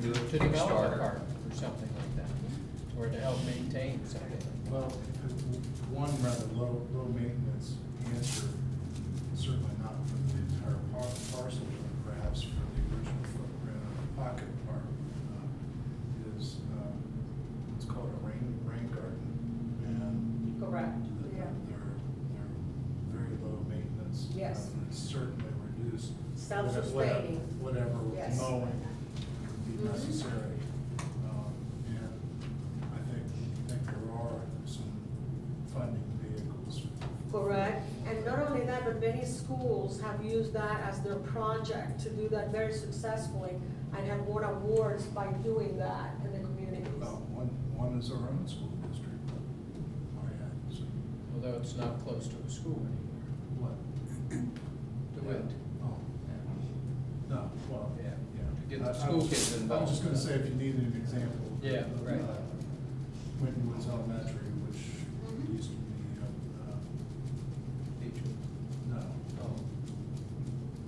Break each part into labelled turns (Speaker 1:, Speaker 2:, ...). Speaker 1: do it
Speaker 2: um, to
Speaker 1: Kickstarter.
Speaker 2: develop a park or something like that, or to help maintain something.
Speaker 3: Well, if- one rather low, low maintenance answer, certainly not for the entire par- parcel, but perhaps for the original footprint of the pocket park, uh, is, um, it's called a rain, rain garden. And
Speaker 4: Correct.
Speaker 3: they're, they're very low maintenance.
Speaker 4: Yes.
Speaker 3: Uh, it's Certainly reduced.
Speaker 4: Self-sustaining.
Speaker 3: Whatever
Speaker 4: Yes.
Speaker 3: mowing would be
Speaker 4: Mhm.
Speaker 3: necessary. Um, And I think, I think there are some funding vehicles.
Speaker 4: Correct, and not only that, but many schools have used that as their project to do that very successfully and have won awards by doing that in the communities.
Speaker 3: Well, one, one is our own school district. Oh, yeah, so,
Speaker 2: Although it's not close to a school anymore,
Speaker 3: What?
Speaker 2: to it.
Speaker 3: Oh, no, well,
Speaker 2: Yeah.
Speaker 3: yeah.
Speaker 2: To get the
Speaker 3: I- I
Speaker 2: school
Speaker 3: was-
Speaker 2: kids
Speaker 3: I was
Speaker 2: involved.
Speaker 3: just gonna say, if you needed an example.
Speaker 2: Yeah,
Speaker 3: of,
Speaker 2: right.
Speaker 3: uh, Whitney Woods Elementary, which
Speaker 4: Mhm.
Speaker 3: used to be, uh, uh, no,
Speaker 2: Oh.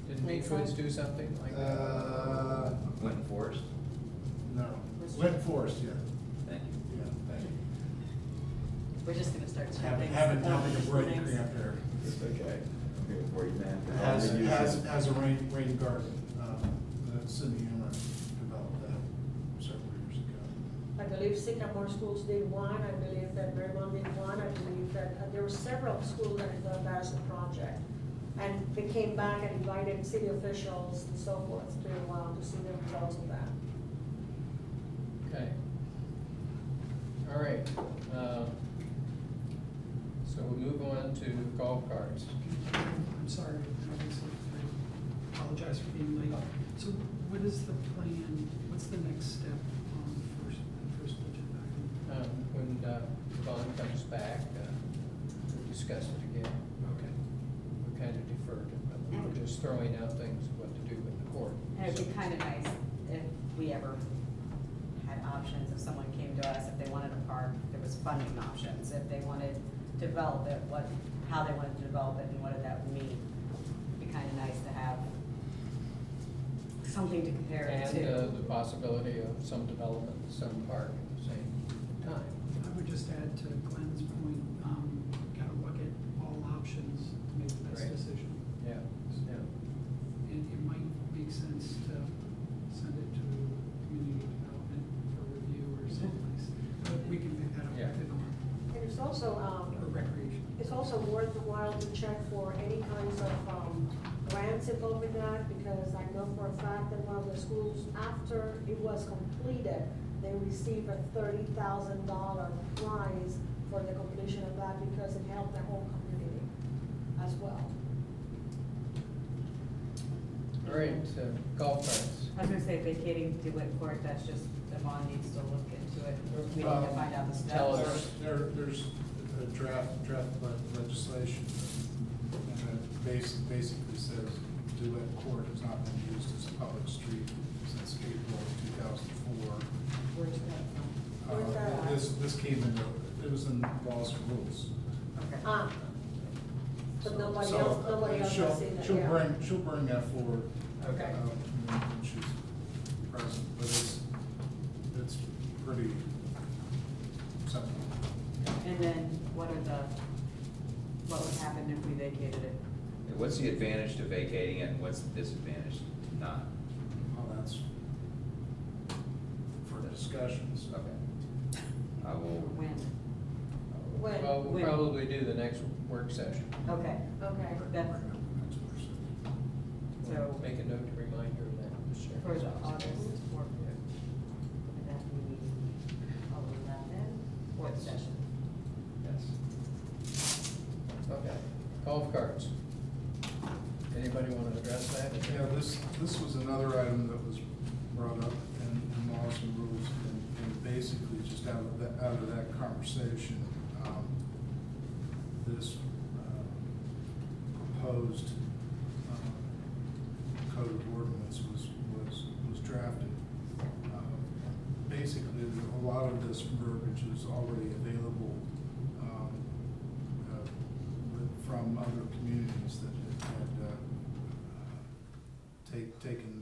Speaker 2: Did Midwoods do something like that?
Speaker 3: Uh,
Speaker 1: Went Forest,
Speaker 3: no, Went Forest, yeah,
Speaker 1: thank you.
Speaker 3: yeah, thank you.
Speaker 5: We're just gonna start
Speaker 3: Haven't,
Speaker 5: tapping.
Speaker 3: haven't,
Speaker 5: all
Speaker 3: haven't
Speaker 5: these
Speaker 3: a break
Speaker 5: things.
Speaker 3: yet there.
Speaker 1: It's okay. I'm here for you, man.
Speaker 3: Has, has, has a rain, rain garden, um, that Cindy Emmer developed that several years ago.
Speaker 4: I believe Sycamore Schools did one, I believe that Vermont did one, I believe that, uh, there were several schools that had done that as a project. And they came back and invited city officials and so forth to, uh, to see the results of that.
Speaker 2: Okay. All right, um, so we'll move on to golf carts.
Speaker 6: I'm sorry, I apologize for being late. So what is the plan, what's the next step on the first, the first budget item?
Speaker 2: Um, when, uh, Vaughn comes back, uh, we'll discuss it again.
Speaker 6: Okay.
Speaker 2: We kind of deferred it, but we we're just throwing out things of what to do with the court.
Speaker 5: And it'd be kind of nice if we ever had options, if someone came to us, if they wanted a park, there was funding options, if they wanted to develop it, what, how they wanted to develop it and what that would mean. It'd be kind of nice to have something to compare it
Speaker 2: And uh,
Speaker 5: to.
Speaker 2: the possibility of some development, some park at the same time.
Speaker 6: I would just add to Glenn's point, um, gotta look at all options to make the best
Speaker 2: Right.
Speaker 6: decision.
Speaker 2: Yeah, yeah.
Speaker 6: It, it might make sense to send it to community development for review or someplace, but we can pick that up
Speaker 2: Yeah.
Speaker 6: within our,
Speaker 4: And it's also, um,
Speaker 6: our recreation.
Speaker 4: It's also worthwhile to check for any kinds of um, grants involved with that, because I know for a fact that one of the schools, after it was completed, they received a thirty thousand dollar prize for the completion of that, because it helped the whole community as well.
Speaker 2: All right, so golf carts.
Speaker 5: I was gonna say vacating DeWitt Court, that's just, Devon needs to look into it, we need to
Speaker 3: Um,
Speaker 5: find out the steps.
Speaker 2: tell us.
Speaker 3: There's- There, there's a draft, draft le- legislation, and it bas- basically says Duett Court has not been used as a public street since April of two thousand four. Uh,
Speaker 5: Where's that
Speaker 4: Where's that at?
Speaker 3: This, this came into, it was in laws and rules.
Speaker 5: from? Okay.
Speaker 4: Ah, But nobody
Speaker 3: So,
Speaker 4: else- nobody
Speaker 3: uh,
Speaker 4: else has
Speaker 3: she'll-
Speaker 4: seen that,
Speaker 3: She'll
Speaker 4: yeah.
Speaker 3: bring, she'll bring that forward.
Speaker 5: Okay.
Speaker 3: um, When she's present, but it's, it's pretty simple.
Speaker 5: And then what are the, what would happen if we vacated it?
Speaker 1: What's the advantage to vacating it and what's the disadvantage to not?
Speaker 3: Well, that's for discussions.
Speaker 1: Okay. I will.
Speaker 5: When?
Speaker 4: When?
Speaker 2: Well, we'll
Speaker 5: When?
Speaker 2: probably do the next work session.
Speaker 5: Okay,
Speaker 4: Okay.
Speaker 5: that's
Speaker 2: We'll
Speaker 5: so
Speaker 2: Make a note to remind her of that this year.
Speaker 5: for the August work,
Speaker 2: Yeah.
Speaker 5: that we need, eleven, work
Speaker 2: Yes.
Speaker 5: session.
Speaker 2: Yes. Okay, golf carts. Anybody want to address that?
Speaker 3: Yeah, this, this was another item that was brought up in, in laws and rules, and, and basically just out of that, out of that conversation, um, this, uh, proposed, um, code of ordinance was, was, was drafted. Um, Basically, a lot of this verbiage is already available, um, uh, with- from other communities that had, uh, take, taken